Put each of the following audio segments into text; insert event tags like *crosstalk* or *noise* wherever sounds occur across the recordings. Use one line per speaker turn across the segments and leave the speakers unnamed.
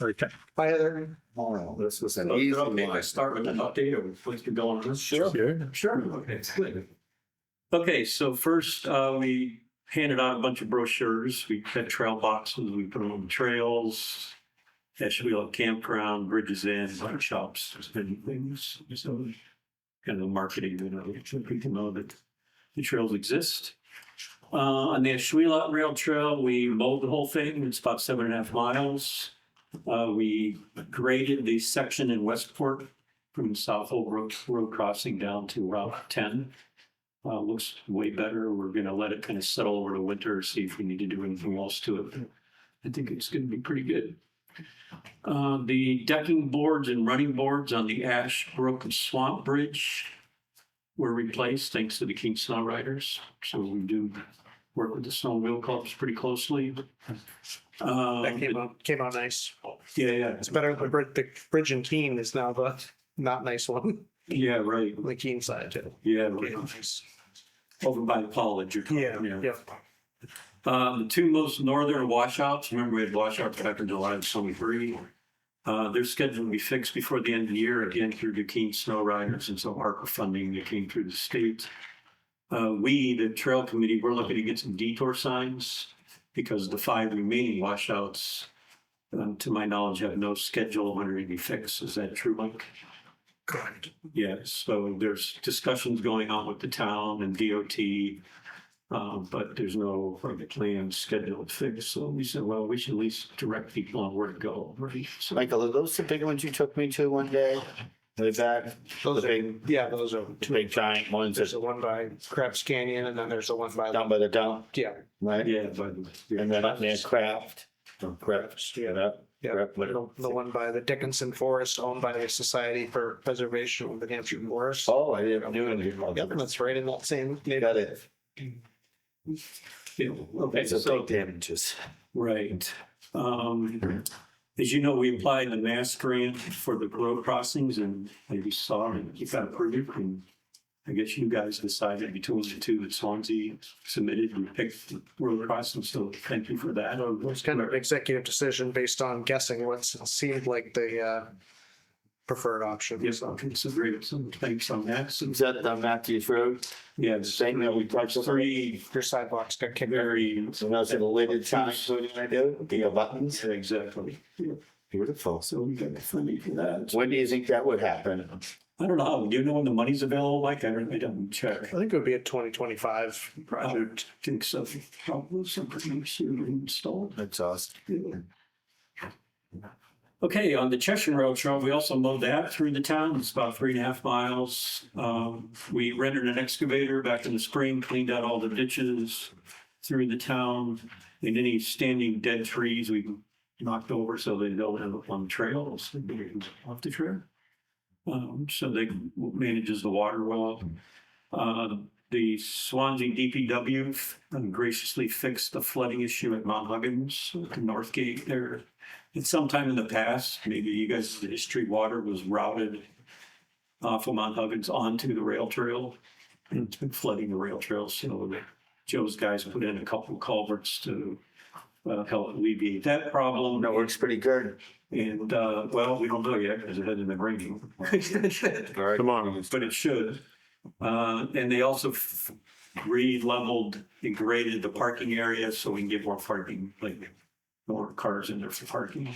Okay.
By other,
All right, this was Oh, an
So is
easy
it okay if I
one.
start with an update or please keep going on this?
Sure.
Sure. Okay, it's good. Okay, so first, uh, we handed out a bunch of brochures. We had trail boxes, we put them on trails. Asheville Campground, Bridges Inn, bike shops, there's many things. So kind of marketing, you know, so people know that the trails exist. Uh, on the Ashwila Rail Trail, we mowed the whole thing. It's about seven and a half miles. Uh, we graded the section in Westport from South Old Road, Road crossing down to Route 10. Uh, looks way better. We're going to let it kind of settle over the winter, see if we need to do anything else to it. I think it's going to be pretty good. Uh, the decking boards and running boards on the Ash Brook and Swamp Bridge were replaced thanks to the King Snow Riders. So we do work with the Snow Wheel Clubs pretty closely. Uh,
that came out, came out nice.
Yeah, yeah.
Um, It's better, the bridge, the bridge in Keene is now the not nice one,
Yeah, right.
on the Keene side too.
Yeah, right.
Came out nice.
over by Pollard. you're
Yeah,
talking,
yeah.
Uh, the two most northern washouts, remember we had washouts back in July of '23. Uh, they're scheduled to be fixed before the end of the year, again through Duquesne Snow Riders and some ARPA funding that came through the state. Uh, we, the trail committee, we're looking to get some detour signs because the five remaining washouts, um, to my knowledge, have no schedule when they're to be fixed. Is that true, Mike?
Correct.
Yeah, so there's discussions going on with the town and DOT. Um, but there's no like, plan scheduled fix, so we said, well, we should at least direct people on where to go, right? So,
Michael, are those the big ones you took me to one day? Way back, the
Those are,
big,
yeah, those are
the
two.
big giant ones
There's
that's
the one by Krebs Canyon and then there's the one by,
down by the dump,
yeah,
right?
yeah, but.
And then up near Craft, from Craft,
Yeah.
yeah,
yeah. The the one by the Dickinson Forest owned by the Society for Preservation of the Hampshire Forest.
Oh, I didn't do
Yep,
anything.
that's right in that same
Got
neighborhood.
it.
Yeah, okay,
It's a
so-
big damages.
Right. Um, as you know, we applied the mass grant for the road crossings and maybe saw it, you got approved. And I guess you guys decided between the two that Swansea submitted, we picked the road crossing, so thank you for that.
It was kind of an executive decision based on guessing what seemed like the uh, preferred option.
Yes, I'll consider it, so thanks on that. So,
Is that the Matthews Road?
yeah, it's
Same that we touched
three
Your sidewalks got kicked.
very,
So those are the lidded signs, what did I do? The buttons?
exactly.
Beautiful.
So we got the funding for that.
When do you think that would happen?
I don't know, do you know when the money's available, Like I don't, I don't check.
I think it would be a twenty twenty-five. um,
I would think so. Probably something soon installed.
That's awesome.
Okay, on the Cheshire Rail Trail, we also mowed that through the town. It's about three and a half miles. Um, we rendered an excavator back in the spring, cleaned out all the ditches through the town. And any standing dead trees we knocked over so they don't end up on trails, they get off the trail. Um, so they manages the water well. Uh, the Swansea DPW graciously fixed the flooding issue at Mount Huggins, at the North Gate there. At some time in the past, maybe you guys, the history water was routed uh, from Mount Huggins onto the rail trail. And it's been flooding the rail trail, so Joe's guys put in a couple of culverts to uh, help alleviate that problem.
That works pretty good.
And, uh, well, we don't know yet because it hasn't been raining,
Tomorrow.
but it should. Uh, and they also f- re-leveled and graded the parking area so we can get more parking, like more cars in there for parking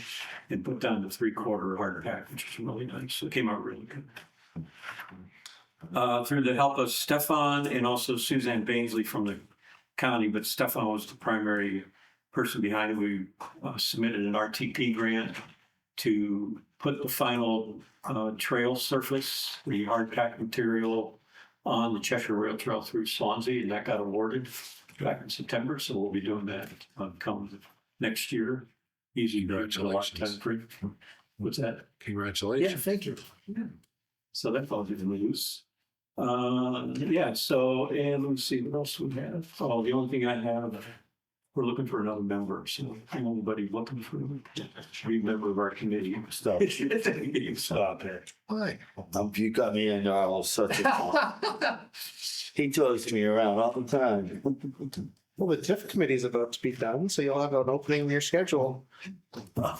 and put down the three-quarter hard pack, which is really nice. So It came out really good. Uh, through the help of Stefan and also Suzanne Bainsley from the county, but Stefan was the primary person behind it. We uh, submitted an RTP grant to put the final uh, trail surface, the hard pack material on the Cheshire Rail Trail through Swansea, and that got awarded back in September, so we'll be doing that uh, come next year. Easy. to do, it's a lot of time for it. What's that?
Congratulations.
thank you. So that's all good news. Uh, yeah, so, and let's see, what else we have? Oh, the only thing I have, we're looking for another member, so anybody looking for a member of our committee.
Stop. Stop it. Why? Um, You got me in all sorts of. He throws me around all the time. *laughs*
Well, the TIF committee is about to be done, so you'll have an opening in your schedule.